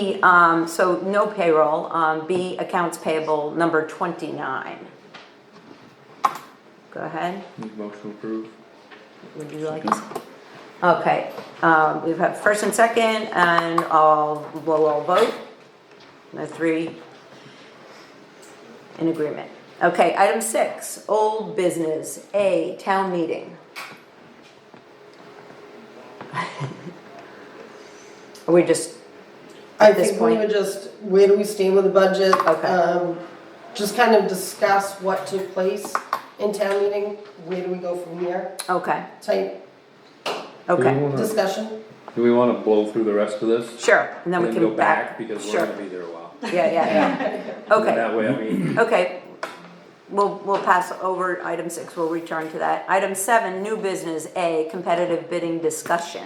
B, um, so no payroll, um, B, accounts payable number twenty-nine. Go ahead, Motion approved. would you like to? Okay, um, we've had first and second, and all, we'll all vote, the three in agreement. Okay, item six, old business, A, town meeting. Are we just I at this think we point? would just, where do we stand with the budget? Okay. um, Just kind of discuss what took place in town meeting, where do we go from here, Okay, type okay, Hmm. discussion. Do we wanna blow through the rest of this? sure, and then we and can go back. Because we're sure. gonna be there a while. Yeah, yeah, yeah, And okay, That way, I mean, okay. We'll, we'll pass over item six, we'll return to that. Item seven, new business, A, competitive bidding discussion.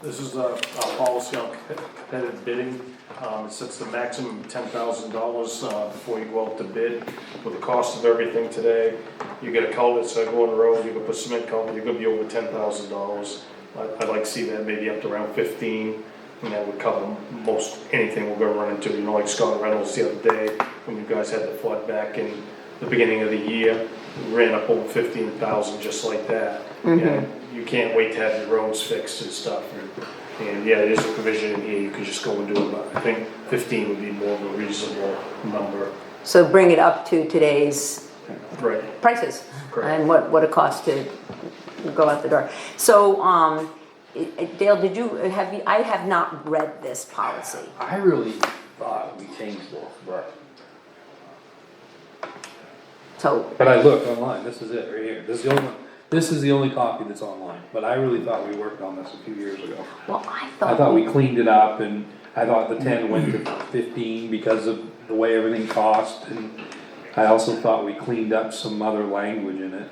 This is a, a policy on competitive bidding. Um, it sets the maximum ten thousand dollars, uh, before you go out to bid. With the cost of everything today, you get a culvert, so I go on the road, you can put cement culvert, you're gonna be over ten thousand dollars. I, I'd like to see that maybe up to around fifteen, and that would cover most, anything we're gonna run into. You know, like Scott Reynolds the other day, when you guys had the flood back in the beginning of the year, we ran up over fifteen thousand just like that. And you can't wait to have your roads fixed and stuff. And- And yeah, it is a provision in here, you could just go and do it, but I think fifteen would be more of a reasonable number. So bring it up to today's Right. prices. Correct. And what, what it costs to go out the door. So, um, i- i- Dale, did you, have you, I have not read this policy. I really thought we changed this, but. So, but I looked online, this is it right here, this is the only, one- this is the only copy that's online, but I really thought we worked on this a few years ago. well, I I thought, thought we cleaned it up and I thought the ten went to fifteen because of the way everything cost and I also thought we cleaned up some other language in it.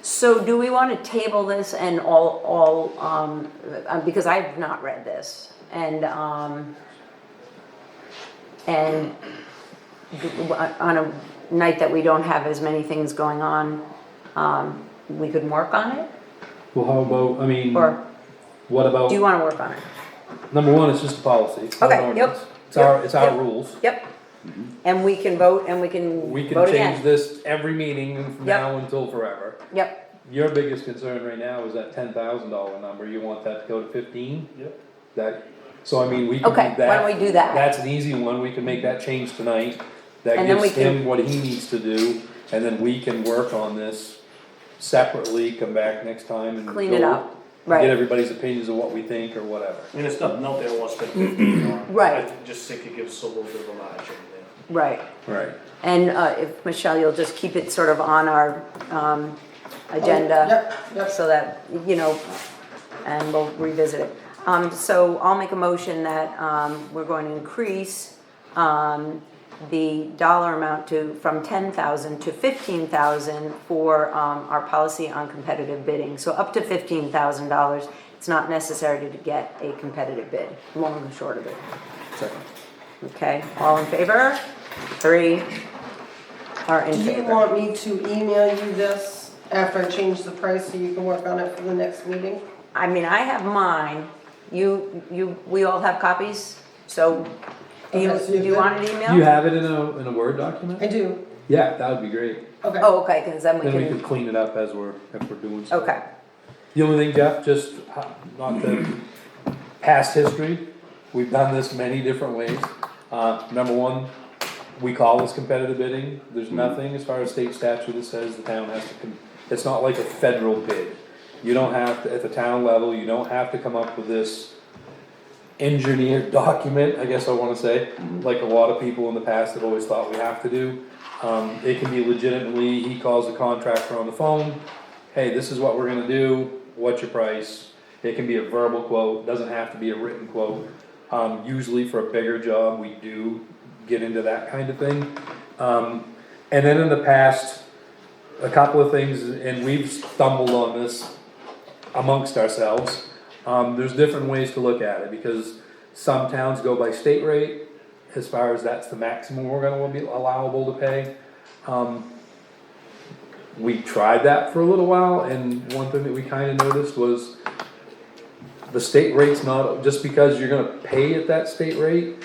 so do we wanna table this and all, all, um, uh, because I've not read this, and, um, and g- on a night that we don't have as many things going on, um, we could work on it, Well, how about, I mean, or what about, do you wanna work on it? number one, it's just a policy. it's not Okay, an yep, ordinance. It's our, yep, it's our yep. rules. Yep. And we can vote and we can Mm-hmm. We can vote change again. this every meeting from Yep. now until forever. Yep, Your biggest concern right now is that ten thousand dollar number, you want that to go to fifteen? Yep. That, so I mean, we can do Okay, that. why don't we do that? That's an easy one, we can make that change tonight, that And then we gives him what he needs to do, and then we can work on this separately, come back next time and. Clean it go- up, right. Get everybody's opinions of what we think or whatever. And it's nothing out there wants to spend fifteen on. Right. I just think it gives us a little bit of a margin there. right. Right. And uh, if, Michelle, you'll just keep it sort of on our um, agenda. Oh, Yep, yep. So that, you know, and we'll revisit it. Um, So I'll make a motion that um, we're going to increase um, the dollar amount to, from 10,000 to 15,000 for um, our policy on competitive bidding. So up to $15,000. It's not necessary to get a competitive bid, long and short of it. Second. Okay, all in favor? Three are in Do you favor. want me to email you this after I change the price so you can work on it for the next meeting? I mean, I have mine. You, you, we all have copies, so do you, Okay, so do you you good? want an email? You have it in a, in a Word document? I do, Yeah, that would be great, okay. Oh, okay, because then we then we could can, clean it up as we're, if we're doing stuff. okay. The only thing, Jeff, just uh, not the past history, we've done this many different ways. Uh, number one, we call this competitive bidding, Mm-hmm. there's nothing as far as state statute that says the town has to, com- it's not like a federal bid. You don't have, to at the town level, you don't have to come up with this engineered document, I guess I wanna say, like a lot of people in the past have always thought we have to do. Um, it can be legitimately, he calls the contractor on the phone, hey, this is what we're gonna do, what's your price? It can be a verbal quote, doesn't have to be a written quote. Um, usually for a bigger job, we do get into that kind of thing. Um, and then in the past, a couple of things, and we've stumbled on this amongst ourselves. Um, there's different ways to look at it, because some towns go by state rate, as far as that's the maximum we're gonna be allowable to pay. Um, we tried that for a little while, and one thing that we kinda noticed was the state rate's not, just because you're gonna pay at that state rate,